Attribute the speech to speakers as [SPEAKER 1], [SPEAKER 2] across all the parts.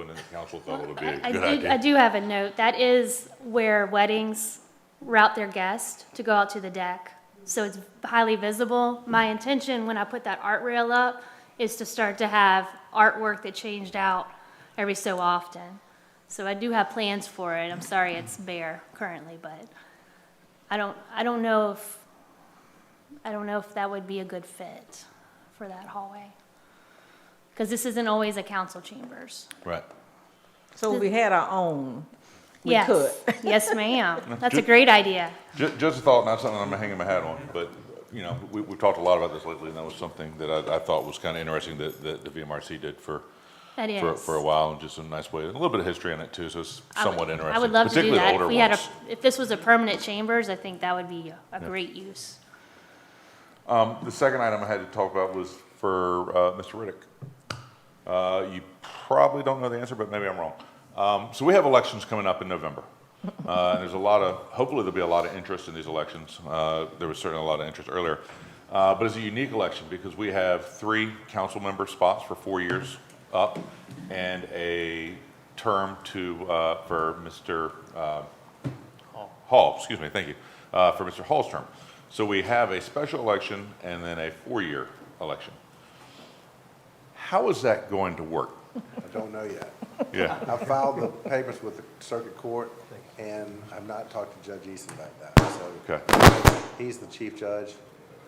[SPEAKER 1] and the council thought it would be a
[SPEAKER 2] I
[SPEAKER 1] good
[SPEAKER 2] do, I
[SPEAKER 1] idea.
[SPEAKER 2] do have a note. That is where weddings route their guests to go out to the deck. So it's highly visible. My intention when I put that art rail up is to start to have artwork that changed out every so often. So I do have plans for it. I'm sorry it's bare currently, but I don't, I don't know if, I don't know if that would be a good fit for that hallway. Because this isn't always a council chambers.
[SPEAKER 1] Right.
[SPEAKER 3] So if we had our own, we
[SPEAKER 2] yes.
[SPEAKER 3] could.
[SPEAKER 2] yes, ma'am. That's a great idea.
[SPEAKER 1] Just, just a thought, not something I'm hanging my hat on, but, you know, we, we've talked a lot about this lately, and that was something that I, I thought was kind of interesting that, that the VMRC did for,
[SPEAKER 2] That is.
[SPEAKER 1] for, for a while, and just a nice way, a little bit of history in it too, so it's
[SPEAKER 2] I would-
[SPEAKER 1] somewhat interesting.
[SPEAKER 2] I would love to do
[SPEAKER 1] particularly the
[SPEAKER 2] that.
[SPEAKER 1] older
[SPEAKER 2] If we had a,
[SPEAKER 1] ones.
[SPEAKER 2] if this was a permanent chambers, I think that would be a great use.
[SPEAKER 1] The second item I had to talk about was for uh, Mr. Riddick. Uh, You probably don't know the answer, but maybe I'm wrong. Um, So we have elections coming up in November. Uh, and There's a lot of, hopefully there'll be a lot of interest in these elections. Uh, There was certainly a lot of interest earlier. Uh, But it's a unique election because we have three council member spots for four years up and a term to, uh, for Mr. uh, Hall, excuse me, thank you, uh, for Mr. Hall's term. So we have a special election and then a four-year election. How is that going to work?
[SPEAKER 4] I don't know yet.
[SPEAKER 1] Yeah,
[SPEAKER 4] I filed the papers with the circuit court, and I've not talked to Judge Easton about that, so. He's the chief judge,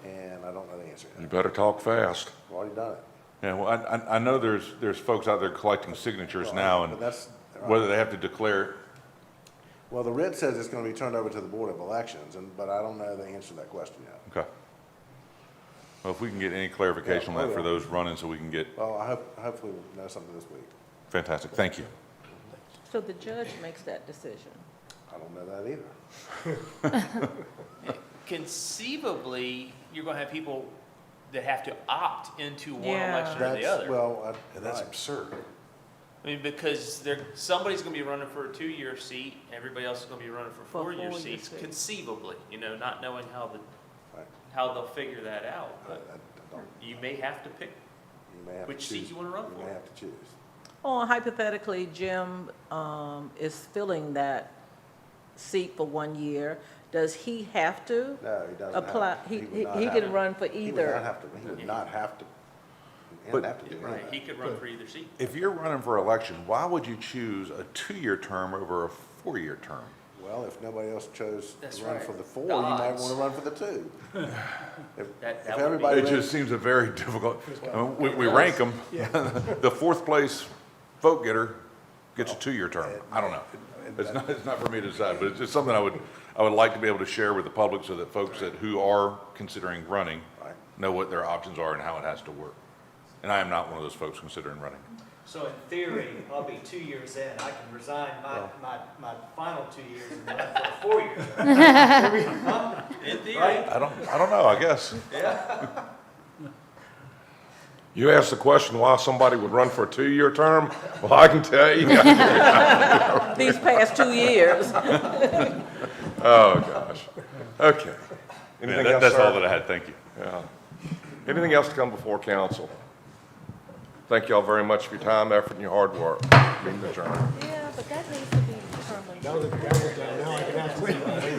[SPEAKER 4] and I don't know the answer.
[SPEAKER 1] You
[SPEAKER 4] I've
[SPEAKER 1] better talk fast.
[SPEAKER 4] already done it.
[SPEAKER 1] Yeah, well, I, I- I know there's, there's folks out there collecting signatures now,
[SPEAKER 4] But
[SPEAKER 1] and
[SPEAKER 4] that's,
[SPEAKER 1] whether they have to declare,
[SPEAKER 4] well, the writ says it's gonna be turned over to the Board of Elections, and, but I don't know the answer to that question yet.
[SPEAKER 1] okay. Well, if we can get any clarification on that for those running, so we can get,
[SPEAKER 4] Well, I hope, hopefully we'll know something this week.
[SPEAKER 1] fantastic, thank you.
[SPEAKER 3] So the judge makes that decision.
[SPEAKER 4] I don't know that either.
[SPEAKER 5] conceivably, you're going to have people that have to opt into one
[SPEAKER 3] Yeah.
[SPEAKER 5] election or the
[SPEAKER 4] That's,
[SPEAKER 5] other.
[SPEAKER 4] well, I. That's absurd.
[SPEAKER 5] I mean, because they somebody's going to be running for a two-year seat, everybody else is going to be running for
[SPEAKER 3] For
[SPEAKER 5] four-year
[SPEAKER 3] four-year
[SPEAKER 5] seats,
[SPEAKER 3] seats.
[SPEAKER 5] conceivably, you know, not knowing how the,
[SPEAKER 4] Right.
[SPEAKER 5] how they'll figure that out.
[SPEAKER 4] I, I
[SPEAKER 5] But
[SPEAKER 4] don't,
[SPEAKER 5] you may have to pick,
[SPEAKER 4] you may have to
[SPEAKER 5] Which seat
[SPEAKER 4] choose-
[SPEAKER 5] you wanna run
[SPEAKER 4] You
[SPEAKER 5] for.
[SPEAKER 4] may have to choose.
[SPEAKER 3] Or hypothetically, Jim um, is filling that seat for one year. Does he have to?
[SPEAKER 4] No, he doesn't have.
[SPEAKER 3] Apply,
[SPEAKER 4] to.
[SPEAKER 3] he,
[SPEAKER 4] would
[SPEAKER 3] he
[SPEAKER 4] not
[SPEAKER 3] he
[SPEAKER 4] have
[SPEAKER 3] can
[SPEAKER 4] to.
[SPEAKER 3] run for
[SPEAKER 4] He would not
[SPEAKER 3] either.
[SPEAKER 4] have to, he would not have to, he
[SPEAKER 1] But-
[SPEAKER 4] would have to do
[SPEAKER 5] right, he
[SPEAKER 4] anything.
[SPEAKER 5] could run for either seat.
[SPEAKER 1] If you're running for election, why would you choose a two-year term over a four-year term?
[SPEAKER 4] Well, if nobody else chose
[SPEAKER 5] That's
[SPEAKER 4] to run
[SPEAKER 5] right.
[SPEAKER 4] for the four,
[SPEAKER 5] The
[SPEAKER 4] you might
[SPEAKER 5] odds.
[SPEAKER 4] want to run for the two. If if
[SPEAKER 5] That- that would be-
[SPEAKER 4] everybody,
[SPEAKER 1] It
[SPEAKER 4] ran-
[SPEAKER 1] just seems a very difficult, I mean, we, we rank them. The fourth place vote getter gets a two-year term. I don't know. It's not, it's not for me to decide, but it's just something I would, I would like to be able to share with the public so that folks that, who are considering running
[SPEAKER 4] Right.
[SPEAKER 1] know what their options are and how it has to work. And I am not one of those folks considering running.
[SPEAKER 6] So in theory, I'll be two years in, I can resign my, my, my final two years and run for a four-year.
[SPEAKER 5] In theory,
[SPEAKER 6] Right?
[SPEAKER 1] I don't, I don't know, I guess.
[SPEAKER 7] You asked the question why somebody would run for a two-year term? Well, I can tell you.
[SPEAKER 3] These past two years.
[SPEAKER 7] Oh, gosh. Okay.
[SPEAKER 1] Yeah,
[SPEAKER 7] Anything
[SPEAKER 1] that-
[SPEAKER 7] else,
[SPEAKER 1] That's all that
[SPEAKER 7] sir?
[SPEAKER 1] I had, thank you.
[SPEAKER 7] Anything else to come before council? Thank y'all very much for your time, effort, and your hard work. Meeting adjourned.
[SPEAKER 3] Yeah, but that needs to be determined.